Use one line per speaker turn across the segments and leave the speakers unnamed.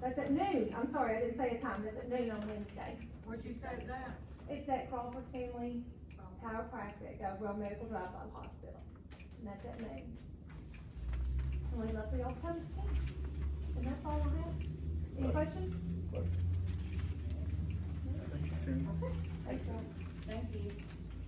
That's at noon, I'm sorry, I didn't say a time, that's at noon on Wednesday.
Where'd you say that?
It's at Crawford Family Chiropractic, Gov. Medical Drive by the hospital, and that's at noon. So we left the old code, and that's all I have. Any questions? Okay, thank you.
Thank you.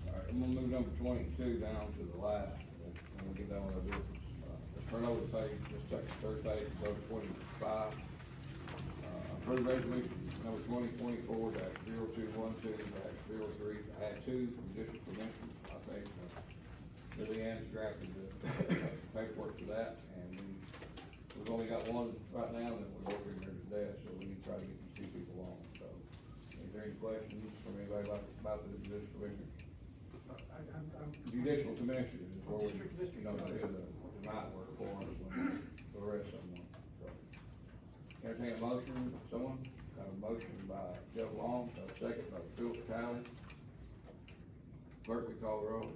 Alright, I'm gonna move number twenty-two down to the last, and and we'll get down with our business. Uh, let's Turn over the page, let's take the third page, go to twenty-five. Uh, Approve resolution number twenty twenty-four dash zero two one two dash zero three, add two from district commission. I think uh, Billy Ann's drafted the paperwork for that, and we, we've only got one right now that we're working here today, so we need to try to get these two people on, so. Is there any questions from anybody about, about the judicial commission?
I, I'm, I'm.
Judicial commission is where we,
District- district
you know,
judge.
is a, might work for us when we arrest someone, so. Entertain a motion, someone, got a motion by Jeff Long, got a second by Philip Talley. Clerk, we call the roll.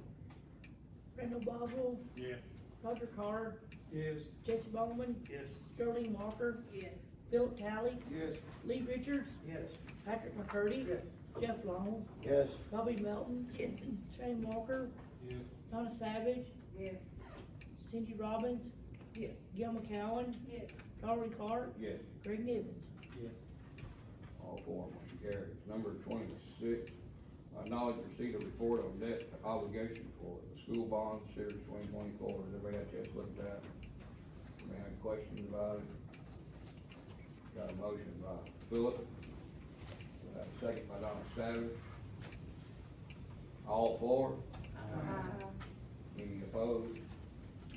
Randall Boswell,
Yes.
Roger Carr,
Yes.
Jesse Bowman,
Yes.
Geraldine Walker,
Yes.
Philip Talley,
Yes.
Lee Richards,
Yes.
Patrick McCurdy.
Yes.
Jeff Long,
Yes.
Bobby Melton. Shane Walker,
Yes.
Donna Savage,
Yes.
Cindy Robbins,
Yes.
Gil McCowen,
Yes.
Darwin Clark,
Yes.
Greg Nivens.
Yes.
All four motion carries. Number twenty-six, acknowledge receipt of report of debt obligation for the school bond series twenty twenty-four. Has everybody had a chance to look at that? Any other questions about it? Got a motion by Philip. Got a second by Donna Savage. All four? Any opposed?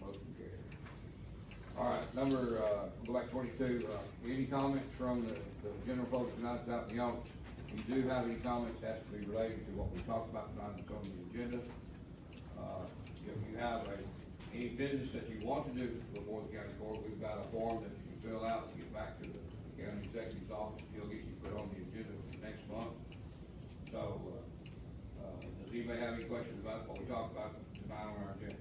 Motion carries. All right, number, uh, go back twenty-two, uh, any comments from the, the general public tonight out in the audience? If you do have any comments, has to be related to what we talked about tonight that's on the agenda. Uh, if you have a, any business that you want to do before the county court, we've got a form that you can fill out, and get back to the county executive's office, he'll get you put on the agenda for next month. So, uh, uh, does anybody have any questions about what we talked about tonight on our agenda?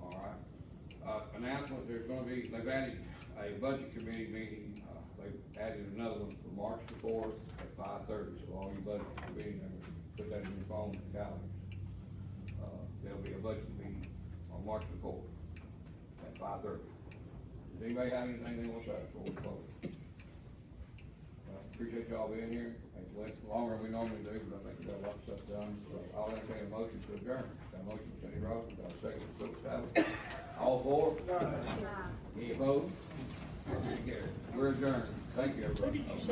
All right. Uh, announcement, there's gonna be, they've added a budget committee meeting, uh, they've added another one for March the fourth at five thirty, so all you budget committee members, put that in your phone and calendars. Uh, there'll be a budget meeting on March the fourth at five thirty. Does anybody have anything they want to say before we close? Uh, Appreciate y'all being here, it's less, longer than we normally do, but I think we got a lot of stuff done, so I'll entertain a motion to adjourn. Got a motion, Kenny Rogers, got a second, Phil Talley. All four?
Uh,
Any opposed? Motion carries. We're adjourned, thank you,
Who
everybody.
did you say?